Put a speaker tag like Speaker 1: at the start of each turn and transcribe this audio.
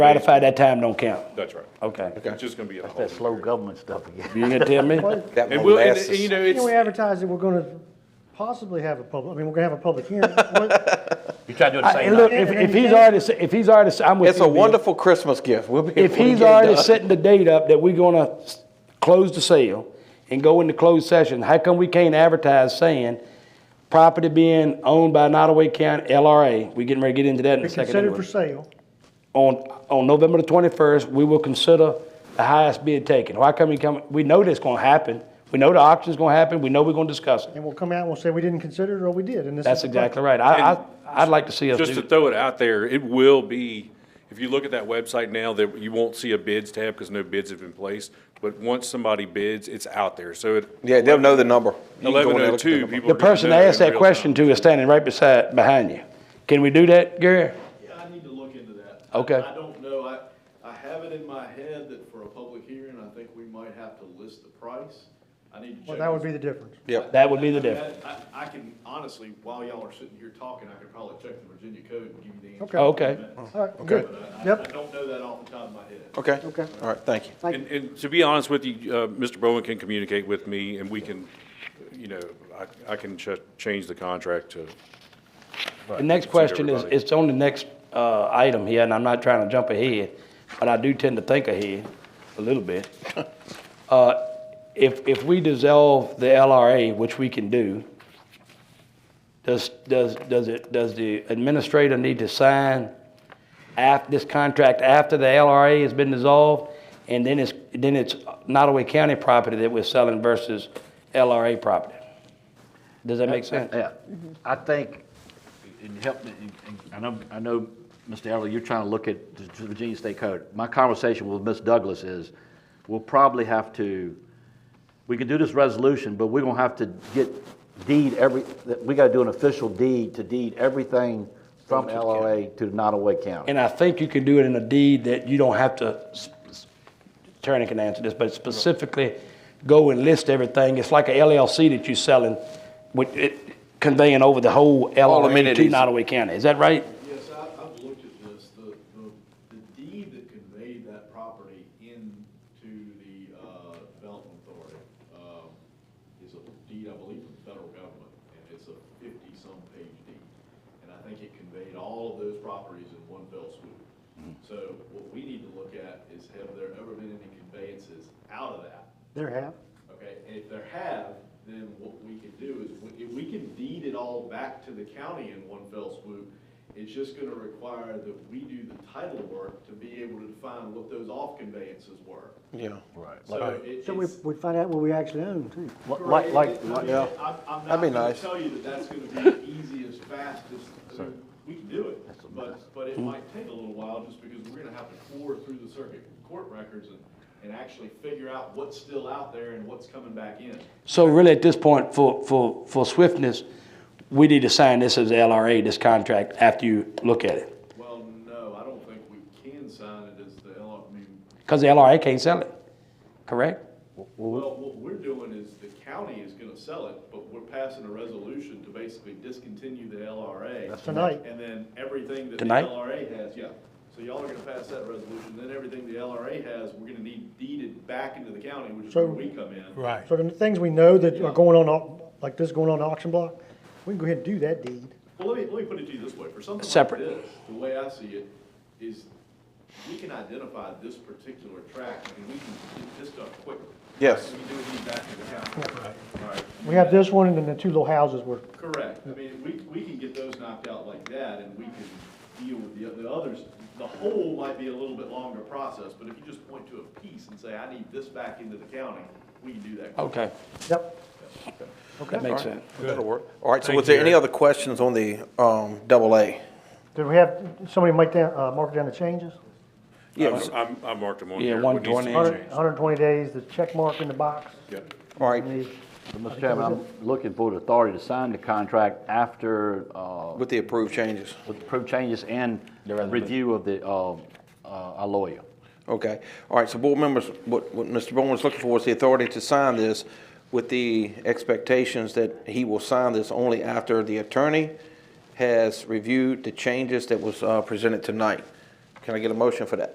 Speaker 1: ratify that time don't count.
Speaker 2: That's right.
Speaker 1: Okay.
Speaker 2: It's just gonna be a whole.
Speaker 3: That slow government stuff again.
Speaker 1: You gonna tell me?
Speaker 4: That
Speaker 2: And we'll, and,
Speaker 4: molasses.
Speaker 2: you know,
Speaker 5: You know, we
Speaker 2: it's,
Speaker 5: advertise that we're gonna possibly have a public, I mean, we're gonna have a public hearing. What-
Speaker 3: You try to do it the
Speaker 1: I-
Speaker 3: same
Speaker 1: And look,
Speaker 3: night.
Speaker 1: if, if he's already, s- if he's already, s- I'm with you.
Speaker 4: It's a
Speaker 1: Bill.
Speaker 4: wonderful Christmas gift. We'll be.
Speaker 1: If
Speaker 4: able to
Speaker 1: he's
Speaker 4: get it
Speaker 1: already
Speaker 4: done.
Speaker 1: setting the date up that we're gonna s- close the sale and go into closed session, how come we can't advertise saying property being owned by Nottaway County LRA? We getting ready to get into that in a
Speaker 5: It's
Speaker 1: second.
Speaker 5: considered
Speaker 1: anyway.
Speaker 5: for sale.
Speaker 1: on, on November the twenty-first, we will consider the highest bid taken. Why come we come, we know that's gonna happen. We know the auction's gonna happen. We know we're gonna discuss it.
Speaker 5: And we'll come out and we'll say we didn't consider it or we did. And this is
Speaker 1: That's
Speaker 5: the-
Speaker 1: exactly right. I, I, I'd like to see us
Speaker 2: just to
Speaker 1: do.
Speaker 2: throw it out there, it will be, if you look at that website now, that you won't see a bids tab because no bids have been placed. But once somebody bids, it's out there. So at
Speaker 4: Yeah, they'll know the number. You can go in
Speaker 2: eleven oh
Speaker 4: there and look at the
Speaker 2: two,
Speaker 4: number.
Speaker 2: people
Speaker 1: The
Speaker 2: are gonna
Speaker 1: person
Speaker 2: know
Speaker 1: I asked
Speaker 2: in
Speaker 1: that
Speaker 2: real
Speaker 1: question
Speaker 2: time.
Speaker 1: to is standing right beside, behind you. Can we do that, Gary?
Speaker 6: Yeah, I need to look into that.
Speaker 1: Okay.
Speaker 6: I I don't know, I, I have it in my head that for a public hearing, I think we might have to list the price. I need to check.
Speaker 5: Well, that would be the difference.
Speaker 4: Yep.
Speaker 1: That would be the
Speaker 6: I mean,
Speaker 1: difference.
Speaker 6: I, I can honestly, while y'all are sitting here talking, I could probably check the Virginia code and give you the
Speaker 5: Okay.
Speaker 6: answer.
Speaker 1: Okay.
Speaker 7: Oh,
Speaker 5: All right, good.
Speaker 6: I
Speaker 5: Yep.
Speaker 6: don't know that off the top of my head.
Speaker 4: Okay.
Speaker 5: Okay.
Speaker 4: All right, thank you.
Speaker 2: And, and to be honest with you, uh, Mr. Bowen can communicate with me and we can, you know, I, I can ch- change the contract to.
Speaker 1: The next question is, it's on the next, uh, item here, and I'm not trying to jump ahead, but I do tend to think ahead a little bit. Uh, if, if we dissolve the LRA, which we can do, does, does, does it, does the administrator need to sign af, this contract after the LRA has been dissolved? And then it's, then it's Nottaway County property that we're selling versus LRA property? Does that make sense?
Speaker 3: Yeah,
Speaker 5: Mm-hmm.
Speaker 3: I think, and help me, and I know, I know, Mr. Elder, you're trying to look at the Virginia State Code. My conversation with Ms. Douglas is, we'll probably have to, we can do this resolution, but we're gonna have to get deed every, that- we gotta do an official deed to deed everything from LRA to Nottaway County.
Speaker 1: And I think you can do it in a deed that you don't have to, s- s- attorney can answer this, but specifically go and list everything. It's like a LLC that you're selling with it conveying over the whole LRA to
Speaker 4: amenities.
Speaker 1: Nottaway County. Is that right?
Speaker 6: Yes, I, I've looked at this, the, the, the deed that conveyed that property into the, uh, development authority, um, is a deed, I believe, from the federal government, and it's a fifty-some page deed. And I think it conveyed all of those properties in one fell swoop. So what we need to look at is have there ever been any conveyances out of that?
Speaker 5: There have.
Speaker 6: Okay, and if there have, then what we can do is, we- if we can deed it all back to the county in one fell swoop, it's just gonna require that we do the title work to be able to define what those off conveyances were.
Speaker 4: Yeah.
Speaker 6: So it- it's.
Speaker 7: So we, we find out what we actually own too.
Speaker 3: Like, like, like-
Speaker 4: yeah.
Speaker 6: I'm, I'm not
Speaker 4: That'd be
Speaker 6: gonna
Speaker 4: nice.
Speaker 6: tell you that that's gonna be the easiest, fastest, I mean, we can do it, but, but it
Speaker 4: Hmm.
Speaker 6: might take a little while, just because we're gonna have to pour through the circuit court records and, and actually figure out what's still out there and what's coming back in.
Speaker 1: So really at this point, for, for, for swiftness, we need to sign this as LRA, this contract, after you look at it.
Speaker 6: Well, no, I don't think we can sign it as the L, I mean,
Speaker 1: Because the LRA can't sell it, correct?
Speaker 6: well, what we're doing is the county is gonna sell it, but we're passing a resolution to basically discontinue the LRA.
Speaker 5: Tonight.
Speaker 6: And then everything that the
Speaker 1: Tonight?
Speaker 6: LRA has, yeah. So y'all are gonna pass that resolution, then everything the LRA has, we're gonna need deeded back into the county, which is where
Speaker 5: So-
Speaker 6: we come in.
Speaker 8: Right.
Speaker 5: So the things we know that are going on, au- like this going on the auction block, we can go ahead and do that deed.
Speaker 6: Well, let me, let me put it to you this way, for something like
Speaker 1: Separate.
Speaker 6: this, the way I see it, is we can identify this particular tract, and we can get this done quickly.
Speaker 4: Yes.
Speaker 6: We can do a deed back to the county. All right,
Speaker 5: We have this one and then the two little houses were,
Speaker 6: correct, I mean, we, we can get those knocked out like that, and we can deal with the, the others. The whole might be a little bit longer process, but if you just point to a piece and say, I need this back into the county, we can do that. quick.
Speaker 1: Okay,
Speaker 5: yep.
Speaker 1: that makes sense.
Speaker 4: That'll work. All right, so was there any other questions on the um, double A?
Speaker 5: Did we have somebody make down, uh, mark down the changes?
Speaker 4: Yes.
Speaker 2: I'm, I'm- I marked them on
Speaker 1: Yeah,
Speaker 2: here. What needs to be
Speaker 1: 120.
Speaker 5: Hundred-
Speaker 2: changed.
Speaker 5: 120 days, the check mark in the box.
Speaker 2: Yeah.
Speaker 4: All right,
Speaker 3: Mr. Chairman, I'm looking for the authority to sign the contract after, uh,
Speaker 4: with the approved changes.
Speaker 3: with approved changes and review of the, uh, uh, our lawyer.
Speaker 4: Okay. All right, so board members, what, what Mr. Bowen is looking for is the authority to sign this with the expectations that he will sign this only after the attorney has reviewed the changes that was uh, presented tonight. Can I get a motion for that?